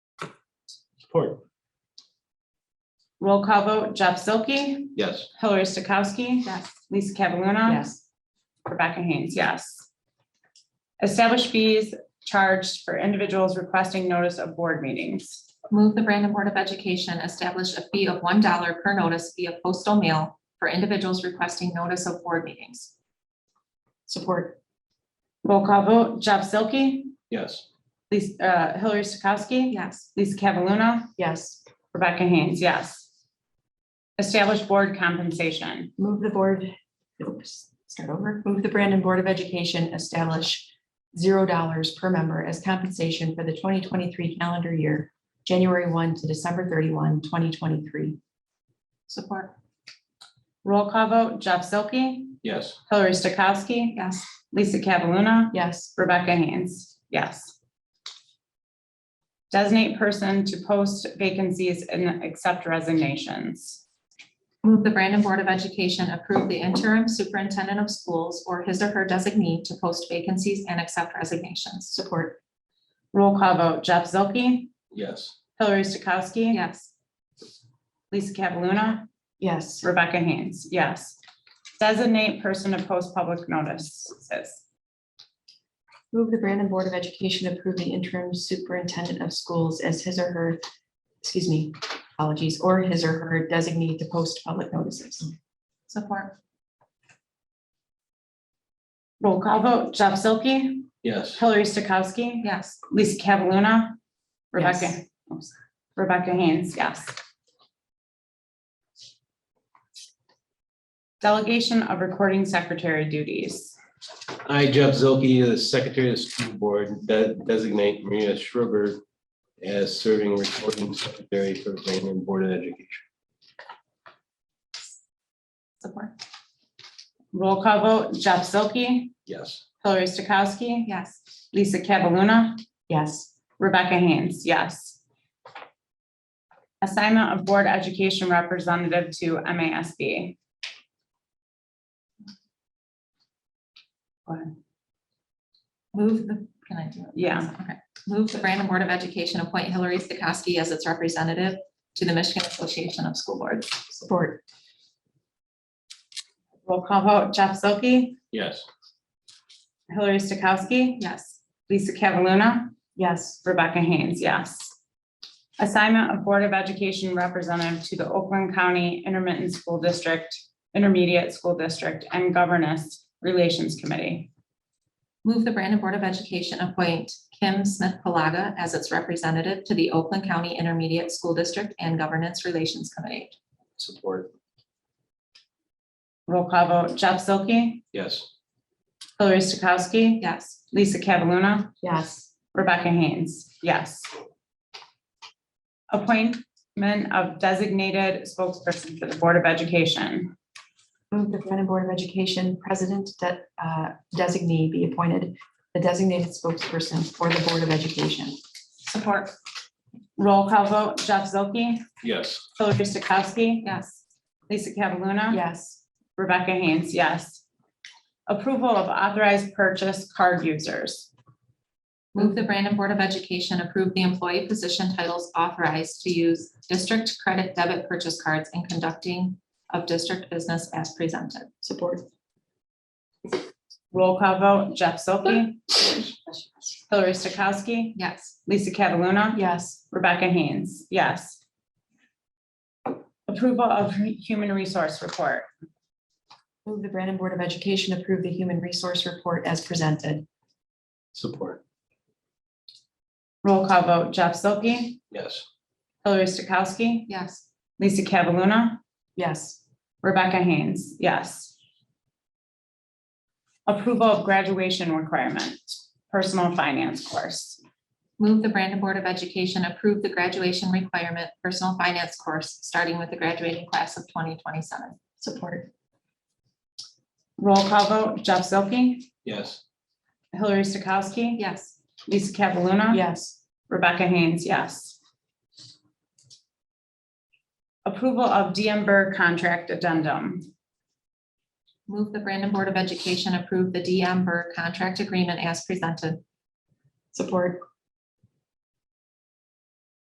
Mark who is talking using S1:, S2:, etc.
S1: Support.
S2: Roll call vote, Jeff Silky,
S1: Yes.
S2: Hillary Stokowski,
S3: Yes.
S2: Lisa Cataluna.
S3: Yes.
S2: Rebecca Haynes, yes. Establish fees charged for individuals requesting notice of board meetings.
S3: Move the Brandon Board of Education establish a fee of one dollar per notice via postal mail for individuals requesting notice of board meetings. Support.
S2: Roll call vote, Jeff Silky,
S1: Yes.
S2: Lisa, uh, Hillary Stokowski.
S3: Yes.
S2: Lisa Cataluna,
S3: Yes.
S2: Rebecca Haynes, yes. Establish board compensation.
S4: Move the board, oops, start over. Move the Brandon Board of Education establish zero dollars per member as compensation for the twenty twenty-three calendar year, January one to December 31, 2023.
S3: Support.
S2: Roll call vote, Jeff Silky,
S1: Yes.
S2: Hillary Stokowski,
S3: Yes.
S2: Lisa Cataluna,
S4: Yes,
S2: Rebecca Haynes, yes. Designate person to post vacancies and accept resignations.
S3: Move the Brandon Board of Education approve the interim superintendent of schools or his or her designee to post vacancies and accept resignations.
S4: support.
S2: Roll call vote, Jeff Zilke,
S1: Yes.
S2: Hillary Stokowski.
S3: Yes.
S2: Lisa Cataluna,
S4: Yes,
S2: Rebecca Haynes, yes. Designate person to post public notices.
S4: move the Brandon Board of Education approve the interim superintendent of schools as his or her, excuse me, apologies, or his or her designee to post public notices.
S3: Support.
S2: Roll call vote, Jeff Zilke,
S1: Yes.
S2: Hillary Stokowski,
S3: Yes.
S2: Lisa Cataluna, Rebecca,
S4: Yes.
S2: oops, Rebecca Haynes, yes. Delegation of recording secretary duties.
S1: I, Jeff Zilke, the Secretary of the School Board, de- designate Maria Schrober as serving recording secretary for Brandon Board of Education.
S3: Support.
S2: Roll call vote, Jeff Zilke,
S1: Yes.
S2: Hillary Stokowski,
S3: Yes.
S2: Lisa Cataluna,
S4: Yes,
S2: Rebecca Haynes, yes. Assignment of Board Education Representative to MASB. Go ahead.
S3: Move the, can I do it?
S2: Yeah,
S3: Okay. Move the Brandon Board of Education appoint Hillary Stokowski as its representative to the Michigan Association of School Boards.
S4: support.
S2: roll call vote, Jeff Zilke,
S1: Yes.
S2: Hillary Stokowski,
S3: Yes.
S2: Lisa Cataluna,
S4: Yes,
S2: Rebecca Haynes, yes. Assignment of Board of Education Representative to the Oakland County Intermittent School District, Intermediate School District, and Governance Relations Committee.
S3: Move the Brandon Board of Education appoint Kim Smith Palaga as its representative to the Oakland County Intermediate School District and Governance Relations Committee.
S1: Support.
S2: Roll call vote, Jeff Zilke,
S1: Yes.
S2: Hillary Stokowski,
S3: Yes.
S2: Lisa Cataluna,
S4: yes.
S2: Rebecca Haynes, yes. Appointment of designated spokesperson for the Board of Education.
S4: Move the Brandon Board of Education President de- uh, designee be appointed the designated spokesperson for the Board of Education.
S3: Support.
S2: Roll call vote, Jeff Zilke,
S1: Yes.
S2: Hillary Stokowski,
S3: Yes.
S2: Lisa Cataluna.
S4: Yes,
S2: Rebecca Haynes, yes. Approval of authorized purchase card users.
S3: Move the Brandon Board of Education approve the employee position titles authorized to use district credit debit purchase cards in conducting of district business as presented.
S4: support.
S2: Roll call vote, Jeff Silky, Hillary Stokowski,
S3: Yes.
S2: Lisa Cataluna.
S4: Yes,
S2: Rebecca Haynes, yes. Approval of human resource report.
S4: move the Brandon Board of Education approve the Human Resource Report as presented.
S1: Support.
S2: Roll call vote, Jeff Silky,
S1: Yes.
S2: Hillary Stokowski,
S3: Yes.
S2: Lisa Cataluna,
S4: Yes,
S2: Rebecca Haynes, yes. Approval of graduation requirement, personal finance course.
S3: Move the Brandon Board of Education approve the graduation requirement personal finance course, starting with the graduating class of twenty twenty-seven.
S4: support.
S2: Roll call vote, Jeff Silky,
S1: Yes.
S2: Hillary Stokowski,
S3: Yes.
S2: Lisa Cataluna.
S4: Yes,
S2: Rebecca Haynes, yes. Approval of DM Burr contract addendum.
S3: Move the Brandon Board of Education approve the DM Burr contract agreement as presented.
S4: support.